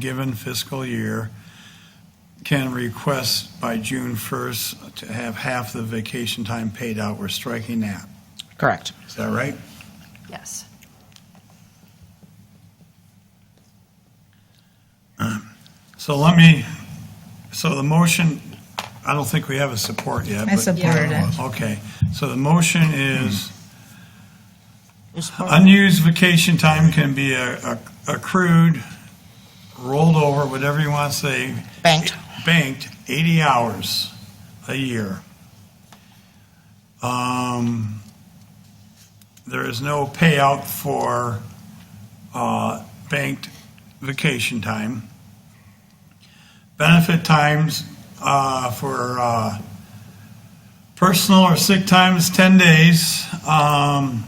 given fiscal year can request by June 1st to have half the vacation time paid out. We're striking that. Correct. Is that right? Yes. So let me, so the motion, I don't think we have a support yet. I but- supported it. Okay, so the motion is unused vacation time can be a- a- accrued, rolled over, whatever you want to say, Banked. banked 80 hours a year. Um, There is no payout for uh, banked vacation time. Benefit times uh, for uh, personal or sick time is 10 days. Um,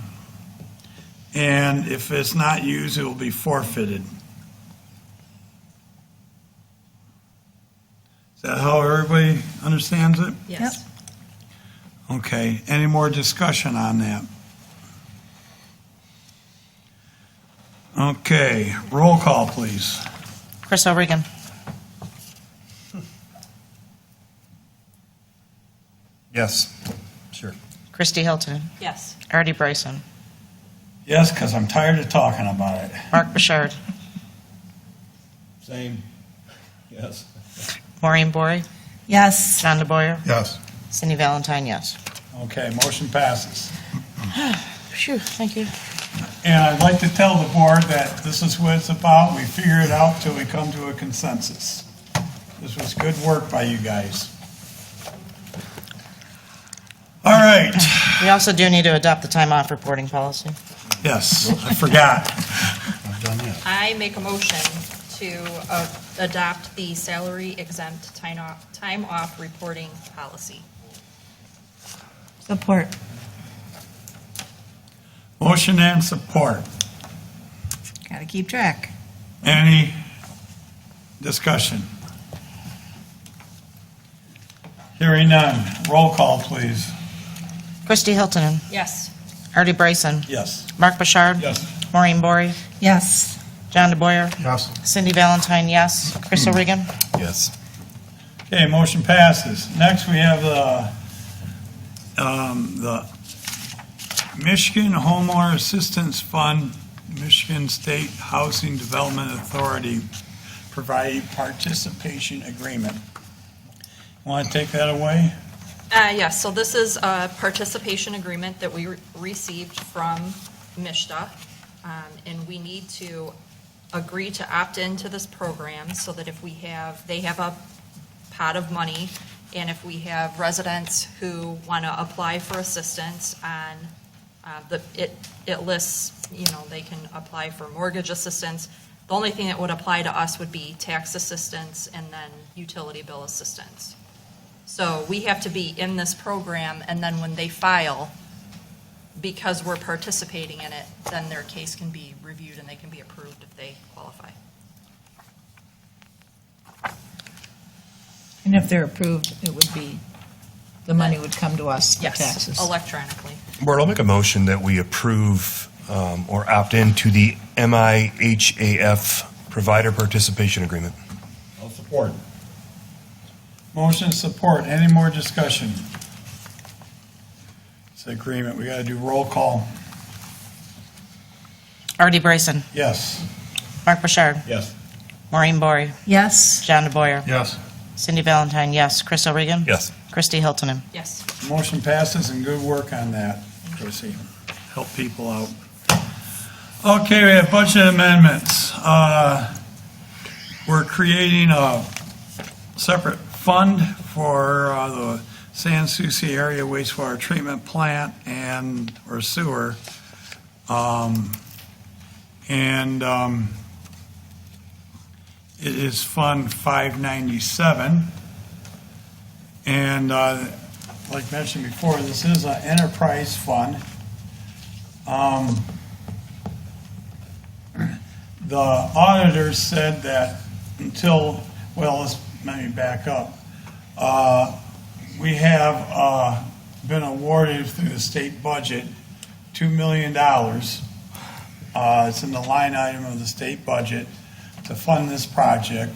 And if it's not used, it will be forfeited. Is that how everybody understands it? Yes. Okay, any more discussion on that? Okay, roll call, please. Chris O'Regan. Yes, sure. Christy Hilton. Yes. Artie Bryson. Yes, because I'm tired of talking about it. Mark Bouchard. Same, yes. Maureen Bory. Yes. John DeBoyer. Yes. Cindy Valentine, yes. Okay, motion passes. Phew, thank you. And I'd like to tell the board that this is what it's about. We figure it out till we come to a consensus. This was good work by you guys. All right, We also do need to adopt the time off reporting policy. yes, I forgot. I've done that. I make a motion to uh, adopt the salary exempt time off, time off reporting policy. Support. Motion and support. Gotta keep track. Any discussion? Hearing none. Roll call, please. Christy Hilton. Yes. Artie Bryson. Yes. Mark Bouchard. Yes. Maureen Bory. Yes. John DeBoyer. Yes. Cindy Valentine, yes. Chris O'Regan. Yes. Okay, motion passes. Next, we have the, um, the Michigan Homeowner Assistance Fund, Michigan State Housing Development Authority Provide Participation Agreement. Want to take that away? Uh, Yes, so this is a participation agreement that we re- received from MISTA, um, and we need to agree to opt into this program so that if we have, they have a pot of money, and if we have residents who want to apply for assistance on, uh, the it it lists, you know, they can apply for mortgage assistance. The only thing that would apply to us would be tax assistance and then utility bill assistance. So we have to be in this program, and then when they file, because we're participating in it, then their case can be reviewed and they can be approved if they qualify. And if they're approved, it would be, the money would come to us for taxes. Yes, electronically. Board, I'll make a motion that we approve um, or opt in to the MIHAF Provider Participation Agreement. I'll support. Motion and support. Any more discussion? It's agreement. We got to do roll call. Artie Bryson. Yes. Mark Bouchard. Yes. Maureen Bory. Yes. John DeBoyer. Yes. Cindy Valentine, yes. Chris O'Regan. Yes. Christy Hilton. Yes. Motion passes and good work on that, Chrissy. Help people out. Okay, we have budget amendments. Uh, We're creating a separate fund for uh, the San Souci area wastewater treatment plant and, or sewer. Um, And um, it is Fund 597. And uh, like mentioned before, this is an enterprise fund. Um, The auditor said that until, well, let's, let me back up. Uh, We have uh, been awarded through the state budget $2 million. Uh, It's in the line item of the state budget to fund this project.